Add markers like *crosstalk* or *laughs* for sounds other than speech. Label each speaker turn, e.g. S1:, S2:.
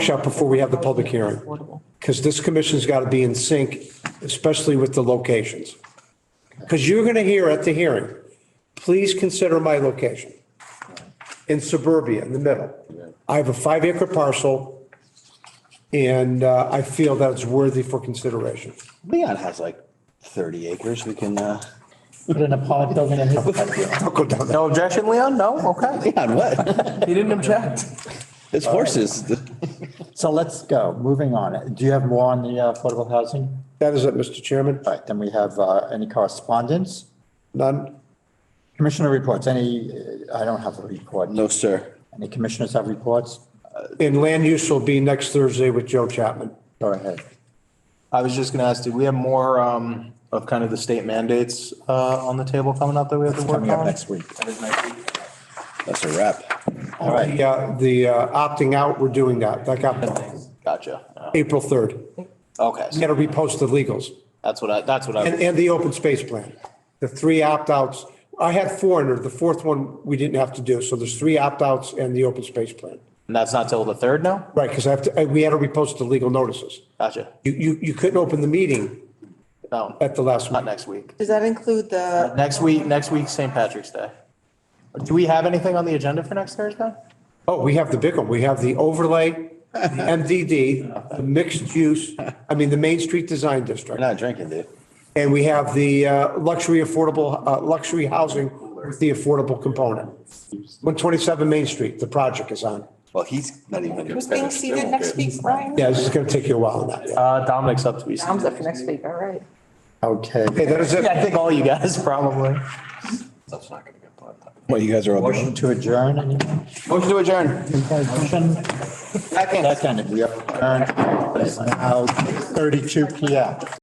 S1: workshop before we have the public hearing. Because this commission's got to be in sync, especially with the locations. Because you're going to hear at the hearing, please consider my location in suburbia, in the middle. I have a five acre parcel and uh, I feel that it's worthy for consideration.
S2: Leon has like thirty acres. We can, uh,
S3: Put in a pod building in his.
S1: Don't go down that.
S4: No objection, Leon? No? Okay.
S2: *laughs* Leon, what?
S4: *laughs* He didn't object.
S2: It's horses.
S3: So let's go, moving on. Do you have more on the uh, affordable housing?
S1: That is it, Mr. Chairman.
S3: All right, then we have uh, any correspondence?
S1: None.
S3: Commissioner reports, any, uh, I don't have a report.
S2: No, sir.
S3: Any commissioners have reports?
S1: And land use will be next Thursday with Joe Chapman.
S3: Go ahead.
S4: I was just gonna ask, do we have more um of kind of the state mandates uh on the table coming up that we have to work
S3: Coming up
S4: on?
S3: next week.
S2: That's a wrap.
S3: All right,
S1: The, uh, The uh, opting out, we're doing that. That got
S4: Gotcha.
S1: April 3rd.
S4: Okay,
S1: Got to repost the legals.
S4: that's what I, that's what
S1: And,
S4: I,
S1: and the open space plan, the three opt-outs. I had four under, the fourth one we didn't have to do. So there's three opt-outs and the open space plan.
S4: and that's not till the third now?
S1: Right, because I have to, I- we had to repost the legal notices.
S4: Gotcha.
S1: You, you, you couldn't open the meeting
S4: No,
S1: at the last
S4: not
S1: minute.
S4: next week.
S5: Does that include the,
S4: Next week, next week, St. Patrick's Day. Do we have anything on the agenda for next Thursday?
S1: Oh, we have the big one. We have the overlay, the MDD, the mixed use, I mean, the Main Street Design District.
S2: You're not drinking, dude.
S1: And we have the uh, luxury affordable, uh, luxury housing with the affordable component. 127 Main Street, the project is on.
S2: Well, he's not even.
S5: who's being seated next week, Brian?
S1: Yeah, this is going to take you a while on that. yeah.
S4: Uh, Dominic's up to be.
S5: Tom's up for next week, all right.
S3: okay.
S1: Okay, that is it.
S4: Yeah, I think all you guys *laughs* probably.
S2: What, you guys are all.
S3: Motion to adjourn, anyone?
S4: Motion to adjourn.
S3: Motion? Second. Second, we are adjourned. It's now 32 PM.